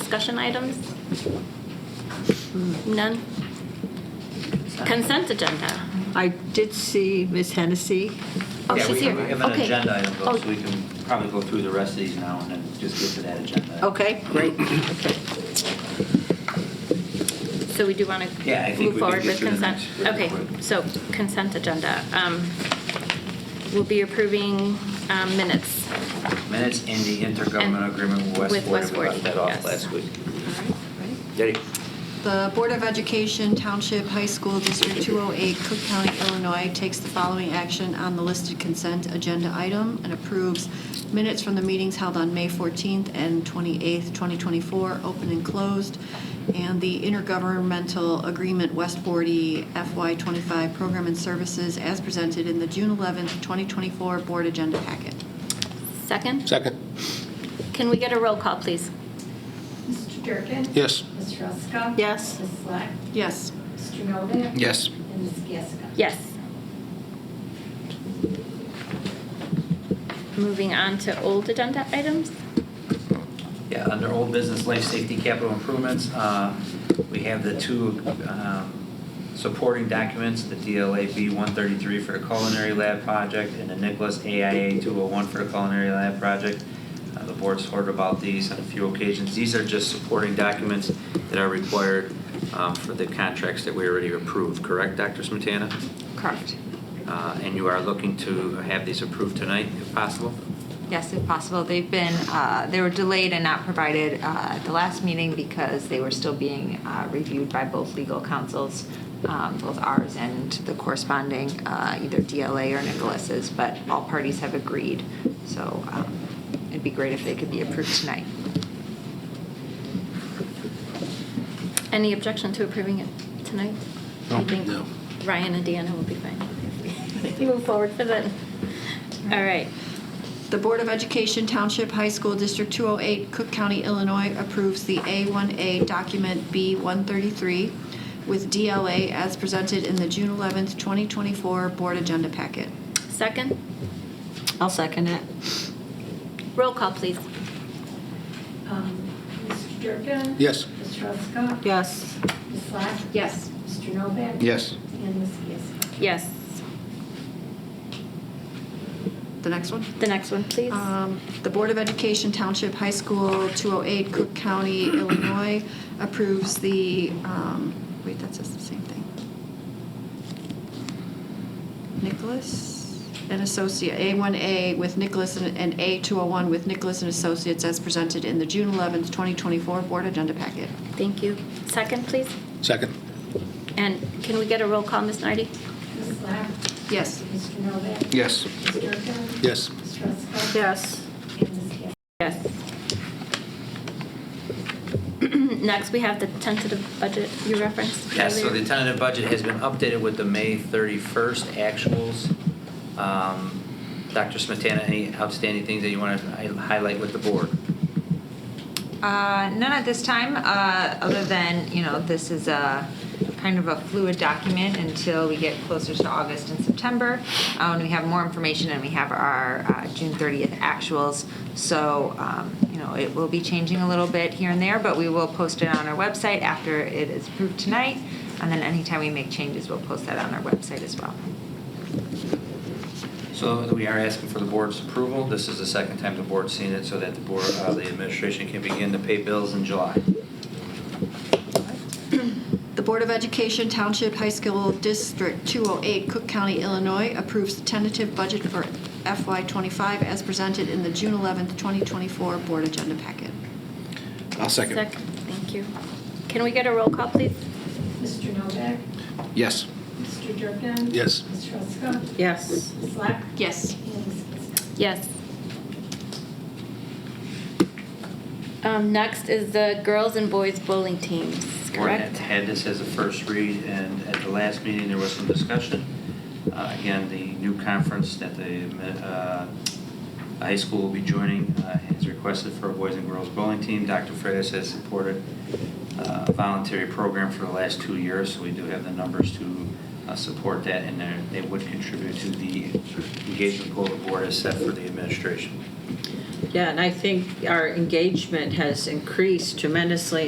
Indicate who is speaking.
Speaker 1: Discussion items? None? Consent agenda?
Speaker 2: I did see Miss Hennessy.
Speaker 1: Oh,
Speaker 3: Yeah,
Speaker 1: she's
Speaker 3: we
Speaker 1: here.
Speaker 3: have- We have an
Speaker 1: Okay.
Speaker 3: agenda item,
Speaker 1: Oh.
Speaker 3: though, so we can probably go through the rest of these now and then just get to that agenda.
Speaker 2: Okay, great. Okay.
Speaker 1: So we do want
Speaker 3: Yeah, I
Speaker 1: to move
Speaker 3: think we can
Speaker 1: forward
Speaker 3: get
Speaker 1: with
Speaker 3: through the
Speaker 1: consent?
Speaker 3: next really
Speaker 1: Okay,
Speaker 3: quick.
Speaker 1: so consent agenda. Um, We'll be approving um, minutes.
Speaker 3: Minutes in the intergovernmental
Speaker 1: And-
Speaker 3: agreement with
Speaker 1: with
Speaker 3: West
Speaker 1: West
Speaker 3: Florida, we
Speaker 1: Forty,
Speaker 3: left that off
Speaker 1: yes.
Speaker 3: last week.
Speaker 2: All right, ready?
Speaker 3: Ready?
Speaker 2: The Board of Education Township High School District 208, Cook County, Illinois, takes the following action on the listed consent agenda item and approves minutes from the meetings held on May 14th and 28th, 2024, open and closed, and the intergovernmental agreement West 40 FY25 Program and Services as presented in the June 11th, 2024 Board Agenda Packet.
Speaker 1: Second?
Speaker 4: Second.
Speaker 1: Can we get a roll call, please?
Speaker 5: Mr. Durkin?
Speaker 4: Yes.
Speaker 5: Mr. Ruska?
Speaker 2: Yes.
Speaker 5: Ms. Slack?
Speaker 2: Yes.
Speaker 5: Mr. Novak?
Speaker 4: Yes.
Speaker 5: And Ms. Gasko?
Speaker 1: Yes. Moving on to old agenda items?
Speaker 3: Yeah, under old business life safety capital improvements, uh, we have the two um, supporting documents, the DLA B-133 for a culinary lab project and the Nicholas AIA 201 for a culinary lab project. Uh, The board's heard about these on a few occasions. These are just supporting documents that are required um, for the contracts that we already approved, correct, Dr. Smetana?
Speaker 6: Correct.
Speaker 3: Uh, And you are looking to have these approved tonight, if possible?
Speaker 6: Yes, if possible. They've been, uh, they were delayed and not provided uh, at the last meeting because they were still being uh, reviewed by both legal counsels, um, both ours and the corresponding, uh, either DLA or Nicholas's, but all parties have agreed. So um, it'd be great if they could be approved tonight.
Speaker 1: Any objection to approving it tonight?
Speaker 4: No.
Speaker 1: I think
Speaker 4: No.
Speaker 1: Ryan and Deanna will be fine. if we Move forward for that. All right.
Speaker 2: The Board of Education Township High School District 208, Cook County, Illinois approves the A1A Document B133 with DLA as presented in the June 11th, 2024 Board Agenda Packet.
Speaker 1: Second,
Speaker 6: I'll second it.
Speaker 1: roll call, please.
Speaker 5: Um, Mr. Durkin?
Speaker 4: Yes.
Speaker 5: Ms. Ruska?
Speaker 6: Yes.
Speaker 5: Ms. Slack?
Speaker 2: Yes.
Speaker 5: Mr. Novak?
Speaker 4: Yes.
Speaker 5: And Ms. Gasko?
Speaker 1: Yes.
Speaker 2: The next one?
Speaker 1: The next one, please.
Speaker 2: Um, The Board of Education Township High School 208, Cook County, Illinois approves the, um, wait, that says the same thing. Nicholas and Associate, A1A with Nicholas and and A201 with Nicholas and Associates as presented in the June 11th, 2024 Board Agenda Packet.
Speaker 1: Thank you. Second, please.
Speaker 4: Second.
Speaker 1: And can we get a roll call, Ms. Nardi?
Speaker 5: Ms. Slack?
Speaker 2: Yes.
Speaker 5: Mr. Novak?
Speaker 4: Yes.
Speaker 5: Mr. Durkin?
Speaker 4: Yes.
Speaker 5: Ms. Ruska?
Speaker 2: Yes.
Speaker 5: And Ms. Gasko?
Speaker 1: Yes. Next, we have the tentative budget you referenced.
Speaker 3: Yes, so the
Speaker 1: earlier.
Speaker 3: tentative budget has been updated with the May 31st actuals. Um, Dr. Smetana, any outstanding things that you want to highlight with the board?
Speaker 6: Uh, None at this time, uh, other than, you know, this is a kind of a fluid document until we get closer to August and September. uh, When we have more information and we have our uh, June 30th actuals. So, um, you know, it will be changing a little bit here and there, but we will post it on our website after it is approved tonight. And then anytime we make changes, we'll post that on our website as well.
Speaker 3: So we are asking for the board's approval. This is the second time the board's seen it, so that the board, uh, the administration can begin to pay bills in July.
Speaker 2: The Board of Education Township High School District 208, Cook County, Illinois approves the tentative budget for FY25 as presented in the June 11th, 2024 Board Agenda Packet.
Speaker 4: I'll second.
Speaker 1: Thank you. Can we get a roll call, please?
Speaker 5: Mr. Novak?
Speaker 4: Yes.
Speaker 5: Mr. Durkin?
Speaker 4: Yes.
Speaker 5: Ms. Ruska?
Speaker 6: Yes.
Speaker 5: Ms. Slack?
Speaker 2: Yes.
Speaker 5: And Ms. Gasko?
Speaker 1: Yes. Um, next is the girls and boys bowling teams,
Speaker 3: We're gonna
Speaker 1: correct?
Speaker 3: Had this as a first read, and at the last meeting, there was some discussion. Uh, Again, the new conference that the uh, high school will be joining uh, has requested for a boys and girls bowling team. Dr. Freitas has supported uh, a voluntary program for the last two years, so we do have the numbers to uh, support that, and they're- they would contribute to the engagement goal the board has set for the administration.
Speaker 6: Yeah, and I think our engagement has increased tremendously